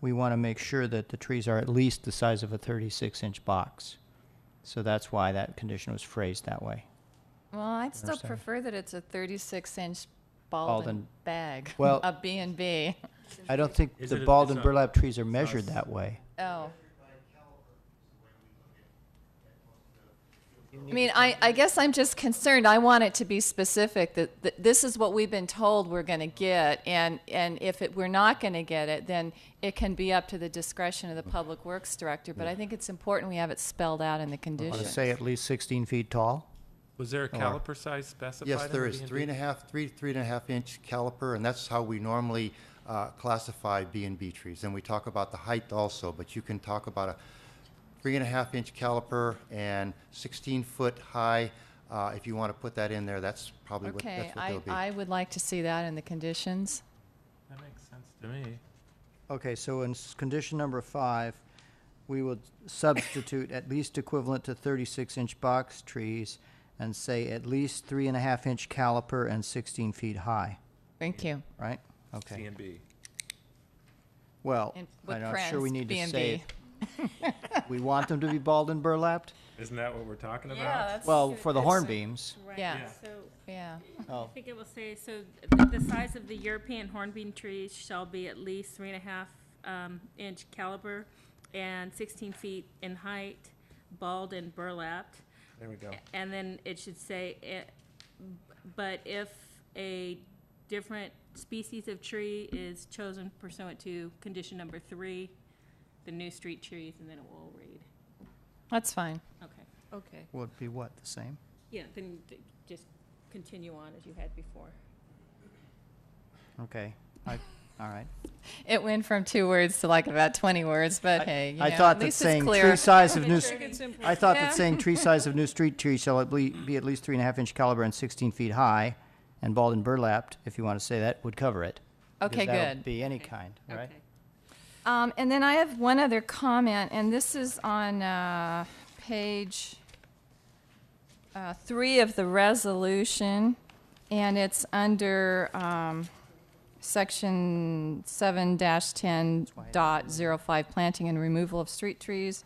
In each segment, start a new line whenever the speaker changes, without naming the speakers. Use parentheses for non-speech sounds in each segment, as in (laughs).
we want to make sure that the trees are at least the size of a 36-inch box. So that's why that condition was phrased that way.
Well, I'd still
Understand.
prefer that it's a thirty-six inch
Baldwin.
Baldwin bag, (laughs)
Well-
a B and B.
I don't think
Is
the
it a-
bald
it's
and
not-
burlap trees are
it's not
measured
s-
that way.
Oh. I mean, I, I guess I'm just concerned, I want it to be specific, that, that this is what we've been told we're gonna get, and, and if it, we're not gonna get it, then it can be up to the discretion of the Public Works Director, but I think it's important we have it spelled out in the
Want to
conditions.
say at least 16 feet tall?
Was there a caliper size specified?
Yes,
in
there
the
is,
B&B?
three and a half, three, three and a half inch caliper, and that's how we normally uh, classify B and B trees. And we talk about the height also, but you can talk about a three and a half inch caliper and sixteen foot high. Uh, If you want to put that in there, that's probably what,
Okay,
that's what
I,
they'll be.
I would like to see that in the conditions.
That makes sense to me.
Okay, so in s- condition number five, we will substitute at least equivalent to thirty-six inch box trees and say at least three and a half inch caliper and sixteen feet high,
Thank you.
right?
C
Okay,
and B.
well,
And with
I'm not sure we need
Prince, B
to
and
say
B.
it. We want them to be bald and burlapped?
Isn't that what we're talking about?
Well, for the hornbeams,
Right,
Yeah.
so
Yeah,
oh,
I think it will say, so th- the size of the European hornbeam tree shall be at least three and a half um, inch caliber and sixteen feet in height, bald and burlapped.
There we go.
Oh.
And then it should say, eh, but if a different species of tree is chosen pursuant to condition number three, the new street trees, and then it will read.
that's fine.
Okay. Okay.
would be what, the same?
Yeah, then d- just continue on as you had before.
Okay, I, all right.
It went from two words to like about 20 words, but hey, you know,
I thought
at
that
least it's
saying
clear.
tree size
(laughs)
of new, s- I thought
Yeah.
that saying tree
(laughs)
size of new street tree shall at le- be at least three and a half inch caliber and sixteen feet high, and bald and burlapped, if you want to say that, would cover it. because
Okay,
that'll
good.
Be any kind, right?
Okay.
Um, and then I have one other comment, and this is on uh, page uh, three of the resolution, and it's under um, section seven ten dot zero five, planting and removal of street trees.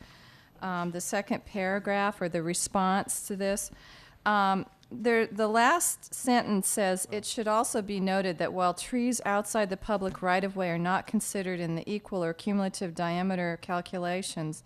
Um, the second paragraph or the response to this. Um, there, the last sentence says, "It should also be noted that while trees outside the public right-of-way are not considered in the equal or cumulative diameter calculations,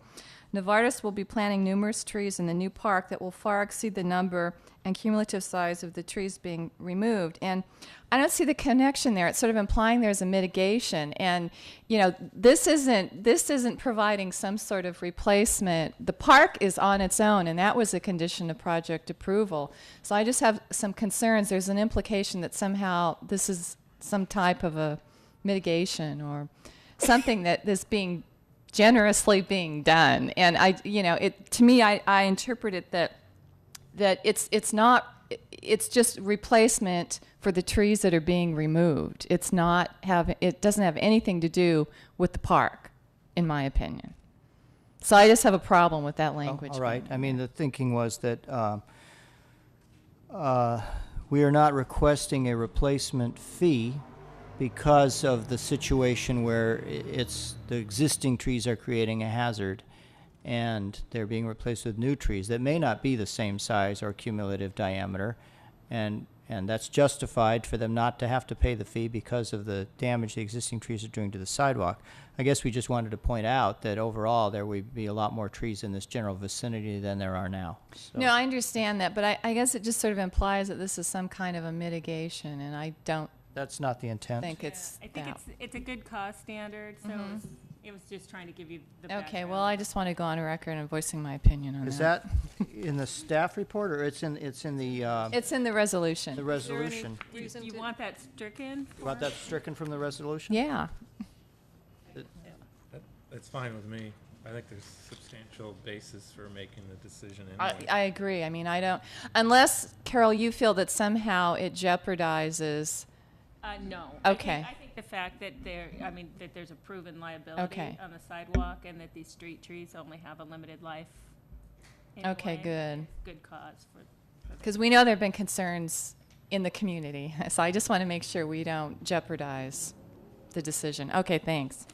Novartis will be planting numerous trees in the new park that will far exceed the number and cumulative size of the trees being removed." And I don't see the connection there. It's sort of implying there's a mitigation, and you know, this isn't this isn't providing some sort of replacement. The park is on its own, and that was a condition of project approval. So I just have some concerns. There's an implication that somehow this is some type of a mitigation or something that is being generously being done. And I, you know, it to me, I, I interpret it that that it's it's not it's just replacement for the trees that are being removed. It's not have it doesn't have anything to do with the park, in my opinion. So I just have a problem with that
Oh,
language.
All right, I mean, the thinking was that, uh, uh, we are not requesting a replacement fee because of the situation where i- it's, the existing trees are creating a hazard and they're being replaced with new trees that may not be the same size or cumulative diameter. And, and that's justified for them not to have to pay the fee because of the damage the existing trees are doing to the sidewalk. I guess we just wanted to point out that overall, there would be a lot more trees in this general vicinity than there are now. So-
No, I understand that, but I, I guess it just sort of implies that this is some kind of a mitigation, and I don't
That's not the intent.
think
Yeah,
it's
I think
that. Mm-hmm.
it's, it's a good cause standard, so it's- it was just trying to give you the background.
okay, well, I just want to go on record and voicing my opinion on
Is that in the staff report, or it's in, it's in the, uh,
It's in the resolution.
the
Is there any
resolution?
reason you want that stricken?
You Want that stricken from the resolution?
yeah.
That, that's fine with me. I think there's substantial basis for making the decision
I,
anyway.
I agree. I mean, I don't, unless, Carol, you feel that somehow it jeopardizes,
Uh, no. I think-
Okay.
I think the fact that there, I mean, that there's a proven liability
Okay.
on the sidewalk and that these street trees only have a limited life.
Okay,
anyway,
good.
is Good cause for,
because we know there have been concerns in the (laughs) community. So I just want to make sure we don't jeopardize the decision. Okay, thanks.